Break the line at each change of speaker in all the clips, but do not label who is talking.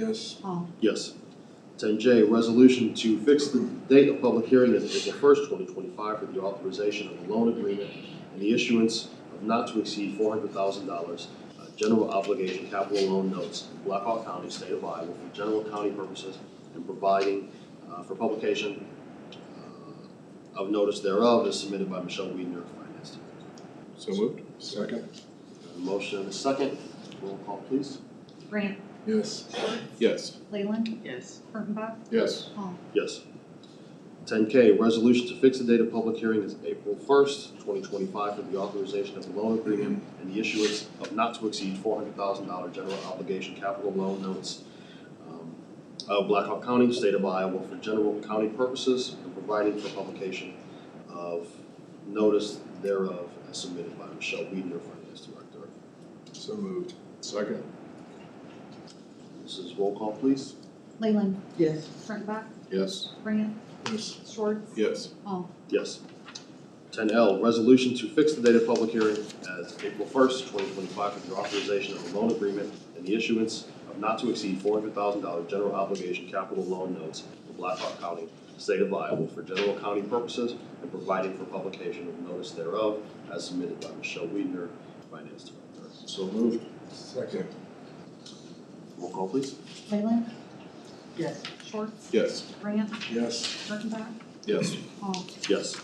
Yes.
Paul,
Yes. Ten J, resolution to fix the date of public hearing as April first, twenty twenty-five for the authorization of a loan agreement and the issuance of not to exceed four hundred thousand dollars uh, general obligation capital loan notes in Blackhawk County, state of Iowa, for general county purposes and providing uh, for publication uh, of notice thereof is submitted by Michelle Weidner, Finance Director.
So moved. Second.
Got a Motion and a second, roll call please.
Grant,
Yes. Yes.
Leyland,
yes,
Kurttenbach,
Yes.
Paul,
Yes. Ten K, resolution to fix the date of public hearing as April first, twenty twenty-five for the authorization of a loan agreement and the issuance of not to exceed four hundred thousand dollar general obligation capital loan notes um, of Blackhawk County, state of Iowa for general county purposes and providing for publication of notice thereof as submitted by Michelle Weidner, Finance Director.
So moved. Second.
This is roll call, please.
Leyland,
yes,
Kurttenbach,
Yes.
Grant,
Yes.
Schwartz,
Yes.
Paul,
Yes. Ten L, resolution to fix the date of public hearing as April first, twenty twenty-five, for the authorization of a loan agreement and the issuance of not to exceed four hundred thousand dollar general obligation capital loan notes for Blackhawk County, state of Iowa, for general county purposes and providing for publication of notice thereof as submitted by Michelle Weidner, Finance Director.
So moved. Second.
Roll call, please.
Leyland,
yes,
Schwartz,
Yes.
Grant,
Yes.
Kurttenbach,
Yes.
Paul,
Yes.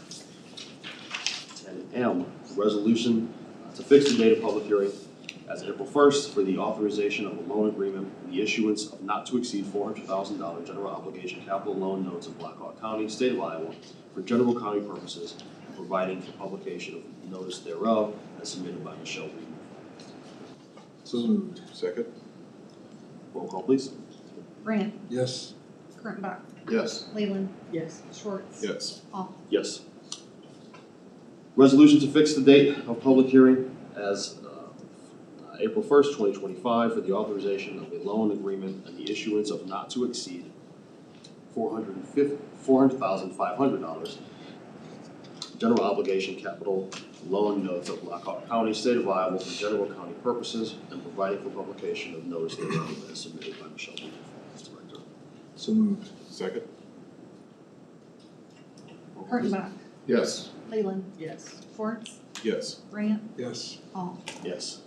Ten M, resolution to fix the date of public hearing as April first for the authorization of a loan agreement and the issuance of not to exceed four hundred thousand dollar general obligation capital loan notes of Blackhawk County, state of Iowa, for general county purposes, and providing for publication of notice thereof as submitted by Michelle Reed.
So moved. Second.
Roll call, please.
Grant,
Yes.
Kurttenbach,
Yes.
Leyland,
yes,
Schwartz,
Yes.
Paul,
Yes. Resolution to fix the date of public hearing as uh, April first, twenty twenty-five for the authorization of a loan agreement and the issuance of not to exceed four hundred and fifty, four hundred thousand five hundred dollars general obligation capital loan notes of Blackhawk County, state of Iowa for general county purposes and providing for publication of notice thereof as submitted by Michelle Weaver, Finance Director.
So moved. Second.
Roll call, please.
Kurttenbach,
Yes.
Leyland,
yes,
Schwartz,
Yes.
Grant,
Yes.
Paul,
Yes.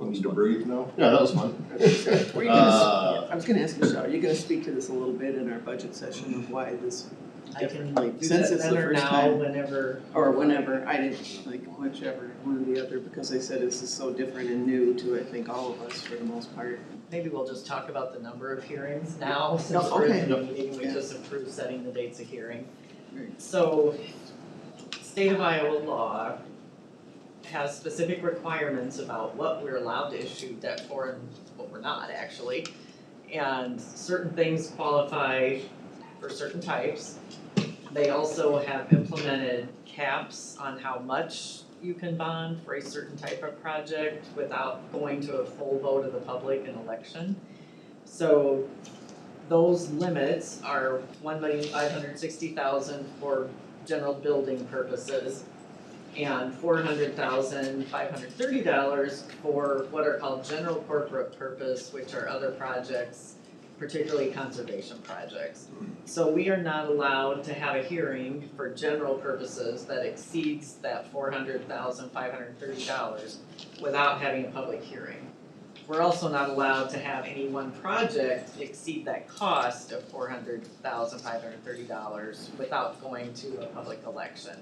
I'll need to breathe now.
Yeah, that was fun.
Were you gonna s-
Uh,
I was gonna ask Michelle, are you gonna speak to this a little bit in our budget session of why this,
I can like do
Since
that
it's the
then or
first
now,
time.
whenever.
or whenever, I didn't, like, whichever, one or the other, because I said this is so different and new to, I think, all of us for the most part.
Maybe we'll just talk about the number of hearings now, since we're
okay.
in the meeting, we
Yeah.
just approved setting the dates of hearing.
Right.
So, state of Iowa law has specific requirements about what we're allowed to issue debt for and what we're not, actually. And certain things qualify for certain types. They also have implemented caps on how much you can bond for a certain type of project without going to a full vote of the public in election. So those limits are one million five hundred sixty thousand for general building purposes and four hundred thousand five hundred thirty dollars for what are called general corporate purpose, which are other projects, particularly conservation projects. So we are not allowed to have a hearing for general purposes that exceeds that four hundred thousand five hundred thirty dollars without having a public hearing. We're also not allowed to have any one project exceed that cost of four hundred thousand five hundred thirty dollars without going to a public election.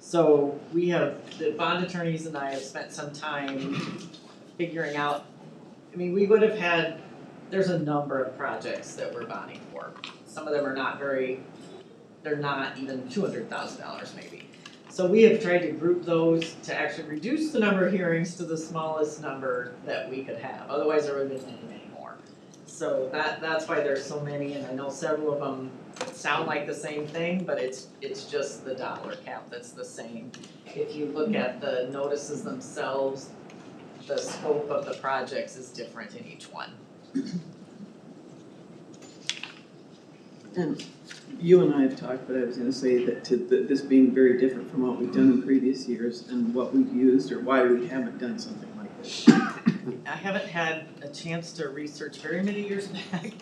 So we have, the bond attorneys and I have spent some time figuring out, I mean, we would have had, there's a number of projects that we're bonding for some of them are not very, they're not even two hundred thousand dollars maybe. So we have tried to group those to actually reduce the number of hearings to the smallest number that we could have, otherwise there would have been many more. So that, that's why there's so many, and I know several of them sound like the same thing, but it's, it's just the dollar cap that's the same. If you look at the notices themselves, the scope of the projects is different in each one.
You and I have talked, but I was gonna say that to, that this being very different from what we've done in previous years and what we've used or why we haven't done something like this.
I haven't had a chance to research very many years back,